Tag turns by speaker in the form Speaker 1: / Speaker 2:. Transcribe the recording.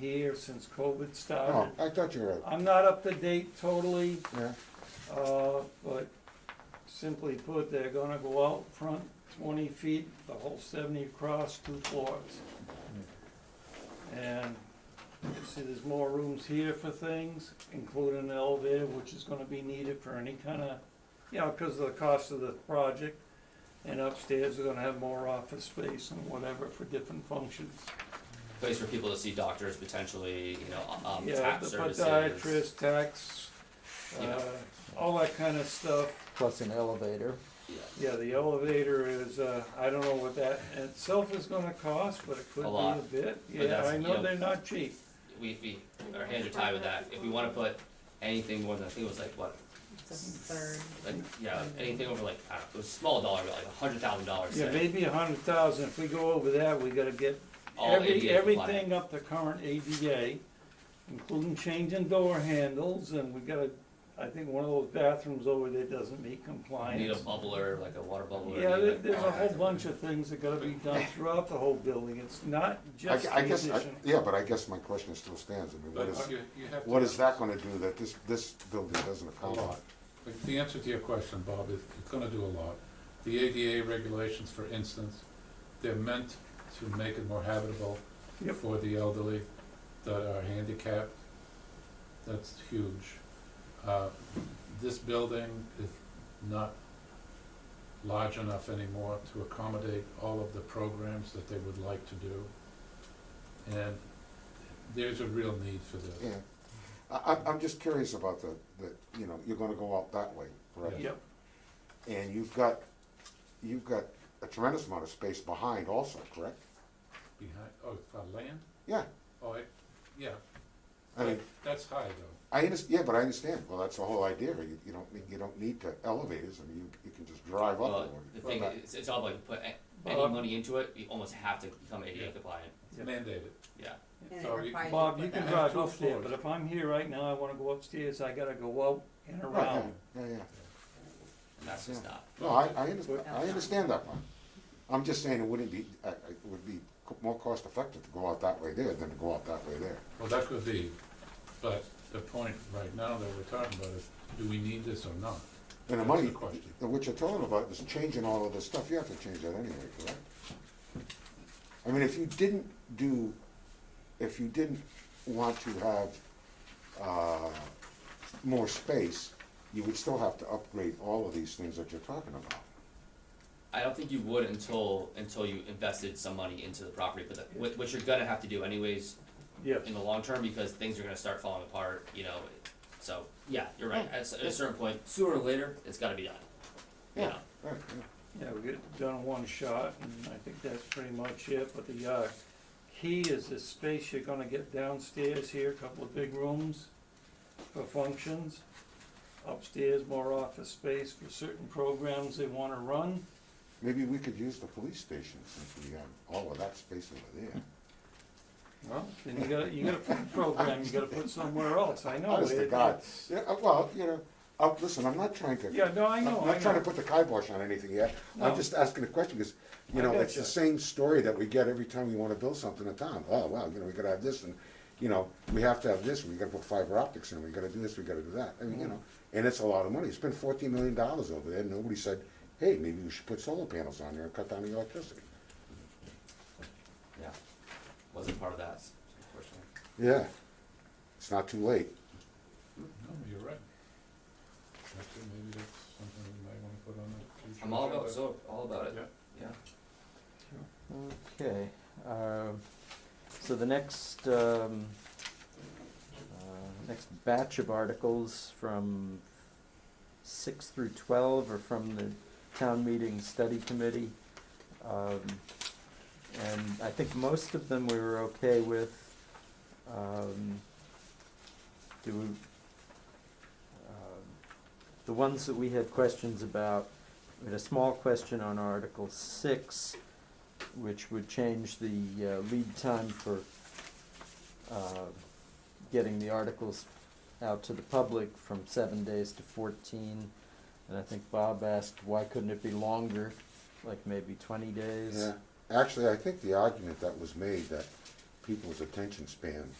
Speaker 1: here since COVID
Speaker 2: Oh,
Speaker 1: started.
Speaker 2: I thought you were out,
Speaker 1: I'm not up to date totally,
Speaker 2: yeah,
Speaker 1: uh, but simply put, they're gonna go out front twenty feet, the whole seventy across, two floors. And you see, there's more rooms here for things, including an elevator, which is gonna be needed for any kind of, you know, because of the cost of the project. And upstairs, we're gonna have more office space and whatever for different functions.
Speaker 3: place for people to see doctors potentially, you know, um,
Speaker 1: Yeah,
Speaker 3: tap
Speaker 1: the
Speaker 3: services.
Speaker 1: podiatrist, tax,
Speaker 3: Yeah.
Speaker 1: uh, all that kind of stuff.
Speaker 4: plus an elevator.
Speaker 3: Yeah.
Speaker 1: Yeah, the elevator is, uh, I don't know what that in itself is gonna cost, but it could be a
Speaker 3: lot.
Speaker 1: bit. Yeah,
Speaker 3: that's,
Speaker 1: I
Speaker 3: you
Speaker 1: know
Speaker 3: know-
Speaker 1: they're not cheap.
Speaker 3: We, we, our hands are tied with that. If we wanna put anything more than, I think it was like, what,
Speaker 5: It's a third.
Speaker 3: like, yeah, anything over like, I don't know, it was a small dollar, but like a hundred thousand dollars.
Speaker 1: Yeah, maybe a hundred thousand. If we go over that, we gotta get
Speaker 3: All
Speaker 1: every,
Speaker 3: ADA compliant.
Speaker 1: everything up to current ADA, including changing door handles, and we gotta, I think one of those bathrooms over there doesn't meet compliance.
Speaker 3: Need a bubbler, like a water bubbler.
Speaker 1: Yeah,
Speaker 3: need,
Speaker 1: there,
Speaker 3: like,
Speaker 1: there's a whole
Speaker 3: bathroom.
Speaker 1: bunch of things that gotta be done throughout the whole building, it's not
Speaker 2: I,
Speaker 1: just
Speaker 2: I
Speaker 1: the
Speaker 2: guess, I-
Speaker 1: addition.
Speaker 2: yeah, but I guess my question still stands, I mean, what
Speaker 6: But
Speaker 2: is,
Speaker 6: you, you have to.
Speaker 2: what is that gonna do that this, this building doesn't
Speaker 6: A
Speaker 2: accomplish?
Speaker 6: lot. But The answer to your question, Bob, is it's gonna do a lot. The ADA regulations, for instance, they're meant to make it more habitable
Speaker 1: Yep.
Speaker 6: for the elderly that are handicapped. That's huge. Uh, This building is not large enough anymore to accommodate all of the programs that they would like to do. And there's a real need for this.
Speaker 2: Yeah, I, I'm, I'm just curious about the, the, you know, you're gonna go out that way, correct?
Speaker 1: Yep,
Speaker 2: And you've got, you've got a tremendous amount of space behind also, correct?
Speaker 6: Behind, oh, for land?
Speaker 2: Yeah,
Speaker 6: Oh, I, yeah.
Speaker 2: I mean,
Speaker 6: That- That's high though.
Speaker 2: I understand, yeah, but I understand, well, that's the whole idea, you, you don't, need- you don't need to elevators, I mean, you, you can just drive up.
Speaker 3: Well,
Speaker 2: or-
Speaker 3: the thing,
Speaker 2: Right.
Speaker 3: is, it's all like, put a- any
Speaker 1: Bob?
Speaker 3: money into it, you almost have to become ADA compliant,
Speaker 6: It's
Speaker 1: Yeah.
Speaker 6: mandated.
Speaker 3: yeah.
Speaker 5: And it
Speaker 6: So you-
Speaker 5: requires
Speaker 1: Bob,
Speaker 5: to
Speaker 1: you
Speaker 5: put
Speaker 1: can
Speaker 5: that-
Speaker 1: drive
Speaker 6: have two
Speaker 1: up there,
Speaker 6: floors.
Speaker 1: but if I'm here right now, I wanna go upstairs, I gotta go out and
Speaker 2: Right,
Speaker 1: around.
Speaker 2: yeah, yeah, yeah.
Speaker 3: And that's just not,
Speaker 2: No, I, I understand, I understand that part. I'm just saying it wouldn't be, uh, it would be co- more cost effective to go out that way there than to go out that way there.
Speaker 6: Well, that could be, but the point right now that we're talking about is, do we need this or not?
Speaker 2: And the
Speaker 6: That's
Speaker 2: money,
Speaker 6: the question.
Speaker 2: that what you're talking about is changing all of this stuff, you have to change that anyway, correct? I mean, if you didn't do, if you didn't want to have, uh, more space, you would still have to upgrade all of these things that you're talking about.
Speaker 3: I don't think you would until, until you invested some money into the property, but that, what, what you're gonna have to do anyways
Speaker 1: Yes,
Speaker 3: in the long term because things are gonna start falling apart, you know, so, yeah, you're right, at, s- at a certain point, sooner or later, it's gotta be done. You
Speaker 2: Yeah.
Speaker 3: know,
Speaker 2: Right, yeah.
Speaker 1: yeah, we get done in one shot, and I think that's pretty much it, but the, uh, key is the space you're gonna get downstairs here, a couple of big rooms for functions. Upstairs, more office space for certain programs they wanna run.
Speaker 2: Maybe we could use the police station since we have all of that space over there. No?
Speaker 1: Then you gotta, you gotta put the program, you gotta put somewhere else, I know.
Speaker 2: Honest to
Speaker 1: it-
Speaker 2: God.
Speaker 1: it's-
Speaker 2: Yeah, uh, well, you know, uh, listen, I'm not trying to.
Speaker 1: Yeah, no, I know,
Speaker 2: I'm
Speaker 1: I
Speaker 2: not trying to
Speaker 1: know.
Speaker 2: put the kibosh on anything yet. I'm
Speaker 1: No.
Speaker 2: just asking a question because,
Speaker 1: I
Speaker 2: you know, it's
Speaker 1: gotcha.
Speaker 2: the same story that we get every time we want to build something in town. Oh, wow, you know, we gotta have this and, you know, we have to have this, we gotta put fiber optics in, we gotta do this, we gotta do that. I mean,
Speaker 1: Mm-hmm.
Speaker 2: you know, and it's a lot of money. It's been fourteen million dollars over there. and Nobody said, hey, maybe we should put solar panels on there and cut down the electricity.
Speaker 3: yeah, wasn't part of that, unfortunately.
Speaker 2: Yeah, it's not too late.
Speaker 6: No, you're right. Actually, maybe that's something we might wanna put on the future.
Speaker 3: I'm all about,
Speaker 6: agenda.
Speaker 3: so, all about it,
Speaker 6: Yeah.
Speaker 3: yeah.
Speaker 4: Okay, um, so the next, um, uh, next batch of articles from six through twelve are from the town meeting study committee. Um, and I think most of them we were okay with. Um, do we, um, the ones that we had questions about, we had a small question on Article six, which would change the uh, lead time for uh, getting the articles out to the public from seven days to fourteen. And I think Bob asked, why couldn't it be longer, like maybe twenty days?
Speaker 2: Yeah, actually, I think the argument that was made that people's attention span